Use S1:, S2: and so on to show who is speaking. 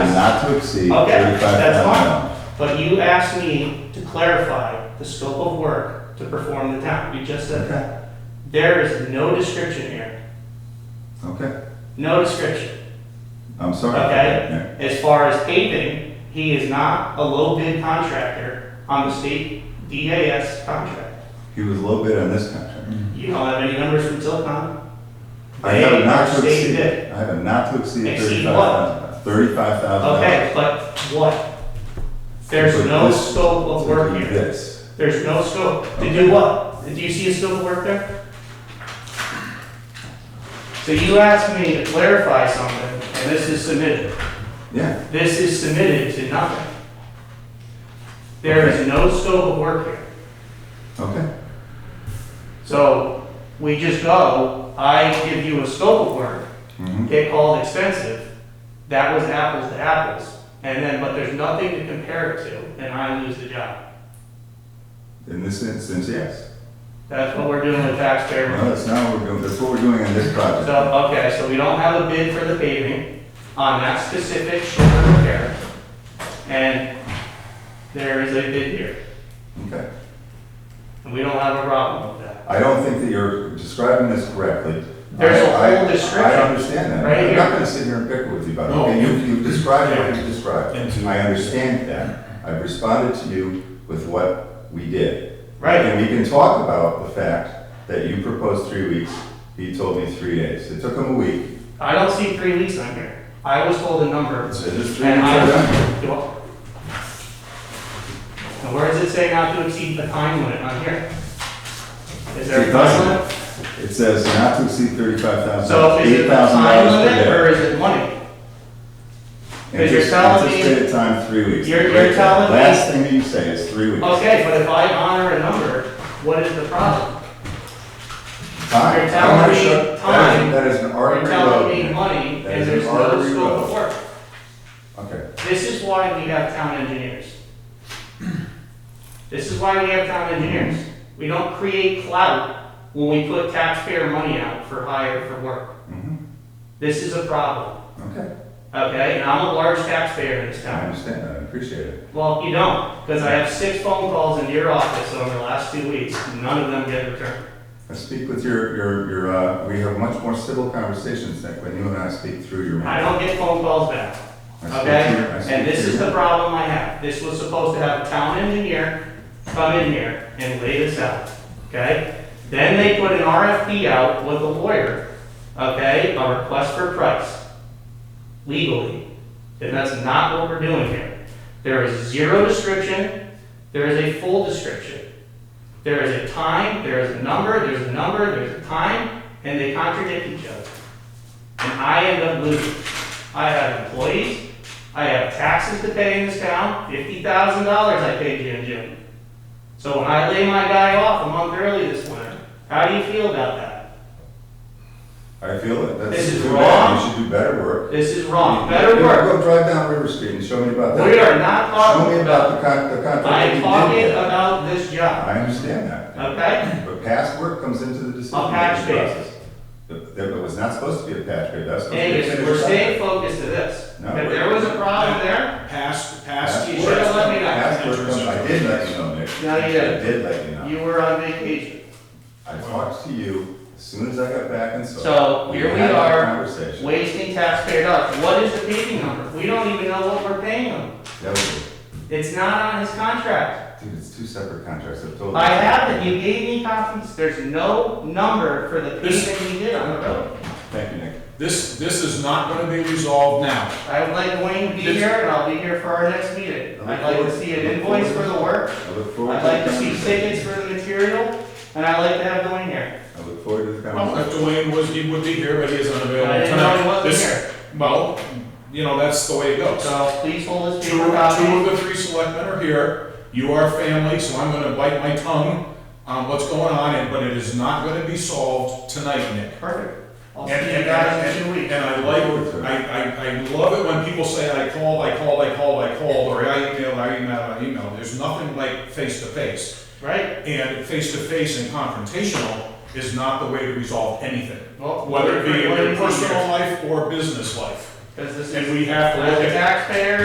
S1: to exceed
S2: Okay,
S1: thirty-five
S2: that's
S1: thousand
S2: fine.
S1: dollars.
S2: But you asked me to clarify the scope of work to perform the town. You just said that. There is no description here.
S1: Okay,
S2: No description.
S1: I'm sorry.
S2: Okay. As far as paving, he is not a low bid contractor on the state DAS contract.
S1: Yeah. He was low bid on this contract.
S2: You don't have any numbers from Tilcon.
S1: I have
S2: They
S1: a not
S2: are
S1: to
S2: stated
S1: exceed,
S2: it.
S1: I have a not to exceed
S2: Exceed
S1: thirty-five thousand. Thirty-five thousand dollars.
S2: Okay, but what? There's
S1: But
S2: no
S1: this-
S2: scope of work here.
S1: This,
S2: There's no scope. To
S1: Okay.
S2: do what? Do you see a scope of work there? So you asked me to clarify something, and this is submitted.
S1: yeah,
S2: This is submitted to nothing. There is no scope of work here.
S1: okay.
S2: So we just go, I give you a scope of work,
S1: Mhm.
S2: get called expensive. That was apples to apples. And then, but there's nothing to compare it to, and I lose the job.
S1: In this instance, yes.
S2: That's what we're doing with taxpayer money.
S1: No, that's not what we're doing, that's what we're doing on this project.
S2: So, okay, so we don't have a bid for the paving on that specific shoulder repair. And there is a bid here,
S1: Okay.
S2: and we don't have a problem with that.
S1: I don't think that you're describing this correctly.
S2: There's a
S1: I- I-
S2: whole description
S1: I understand that.
S2: right
S1: I'm
S2: here.
S1: not gonna sit here and bicker with you about it.
S3: No.
S1: Okay, you, you've described what you
S3: And
S1: described.
S3: to-
S1: I understand that. I've responded to you with what we did.
S2: Right,
S1: And we can talk about the fact that you proposed three weeks, he told me three days. It took him a week.
S2: I don't see three weeks on here. I was told a number.
S1: So just three
S2: And
S1: weeks
S2: I
S1: are done.
S2: And where does it say not to exceed the time limit on here? Is there a time limit?
S1: It says not to exceed thirty-five
S2: So
S1: thousand,
S2: is it
S1: eight
S2: the
S1: thousand
S2: time
S1: dollars per
S2: limit
S1: day.
S2: or is it money? Because you're
S1: Antici-
S2: telling me-
S1: Anticipated time, three weeks.
S2: You're- you're telling me-
S1: Last thing that you say is three weeks.
S2: Okay, but if I honor a number, what is the problem?
S1: Time.
S2: You're telling
S1: I'm not
S2: me
S1: sure- that is-
S2: time.
S1: That is an
S2: You're
S1: arbitrary vote.
S2: telling me money,
S1: That
S2: and
S1: is
S2: there's
S1: an
S2: no
S1: arbitrary
S2: scope of
S1: vote.
S2: work.
S1: Okay,
S2: This is why we have town engineers. This is why we have town engineers. We don't create clout when we put taxpayer money out for hire for work.
S1: mhm,
S2: This is a problem,
S1: okay,
S2: okay? And I'm a large taxpayer in this
S1: I
S2: town.
S1: understand that, I appreciate it.
S2: Well, you don't, because I have six phone calls into your office over the last two weeks. None of them get returned.
S1: I speak with your, your, your, uh, we have much more civil conversations than when you and I speak through your.
S2: I don't get phone calls back.
S1: I speak to your- I
S2: Okay,
S1: speak
S2: and this
S1: to
S2: is
S1: your-
S2: the problem I have, this was supposed to have a town engineer come in here and lay this out, okay? Then they put an RFP out with a lawyer, okay, a request for price, legally, and that's not what we're doing here. There is zero description, there is a full description. There is a time, there is a number, there's a number, there's a time, and they contradict each other. And I end up losing. I have employees, I have taxes to pay in this town, fifty thousand dollars I paid you in June. So when I lay my guy off a month early this winter, how do you feel about that?
S1: I feel it, that's.
S2: This is
S1: too bad.
S2: wrong.
S1: You should do better work.
S2: This is wrong, better work.
S1: Go drive down River Street and show me about that.
S2: We are not
S1: Show
S2: talking
S1: me
S2: about,
S1: about the con, the contract. that you
S2: I'm
S1: did get.
S2: talking about this job,
S1: I understand that.
S2: okay?
S1: But past work comes into the decision.
S2: A patch
S1: making
S2: base.
S1: process. That that was not supposed to be a patch grade, that's supposed to be. a
S2: Angus,
S1: finished
S2: we're
S1: product.
S2: staying focused to this.
S1: No,
S2: If
S1: we're-
S2: there was a problem there,
S3: Past,
S1: Past
S3: past.
S2: You should have let me know.
S1: Past work comes, I did let you know, Nick.
S2: No, you didn't.
S1: I did let you know.
S2: you were on vacation.
S1: I talked to you as soon as I got back and saw.
S2: So here we
S1: had that
S2: are,
S1: Conversation.
S2: wasting taxpayer dollars. What is the paving number? We don't even know what we're paying him.
S1: That was,
S2: It's not on his contract.
S1: dude, it's two separate contracts, I've told you.
S2: I have it, you gave me copies, there's no number for the
S3: This-
S2: pavement you did on the road.
S1: Thank you, Nick.
S3: This, this is not gonna be resolved now.
S2: I would like Wayne to be
S3: This-
S2: here, and I'll be here for our next meeting. I'd like to see an invoice for the work,
S1: I look forward
S2: I'd
S1: to the
S2: like to see
S1: conversation.
S2: tickets for the material, and I'd like to have Dwayne here.
S1: I look forward to the
S3: Well,
S1: conversation.
S3: if Dwayne was, he would be here, but he is
S2: But I
S3: unavailable
S2: didn't know he
S3: tonight.
S2: wasn't
S3: This,
S2: here,
S3: well, you know, that's the way it goes.
S2: so please hold this
S3: Two, two
S2: paper copy.
S3: of the three selectmen are here, you are family, so I'm gonna bite my tongue on what's going on, and- but it is not gonna be solved tonight, Nick.
S2: Perfect. I'll
S3: And-
S2: see you
S3: and-
S2: guys in
S3: and-
S2: two weeks.
S3: And I like, I, I, I love it when people say, I called, I called, I called, I called, or I emailed, I emailed, I emailed. There's nothing like face-to-face.
S2: Right?
S3: And face-to-face and confrontational is not the way to resolve anything,
S2: Well,
S3: whether it be in
S2: we're-
S3: your
S2: we're-
S3: personal life or business life.
S2: Because this
S3: And
S2: is,
S3: we have to
S2: as
S3: look
S2: a
S3: at
S2: taxpayer,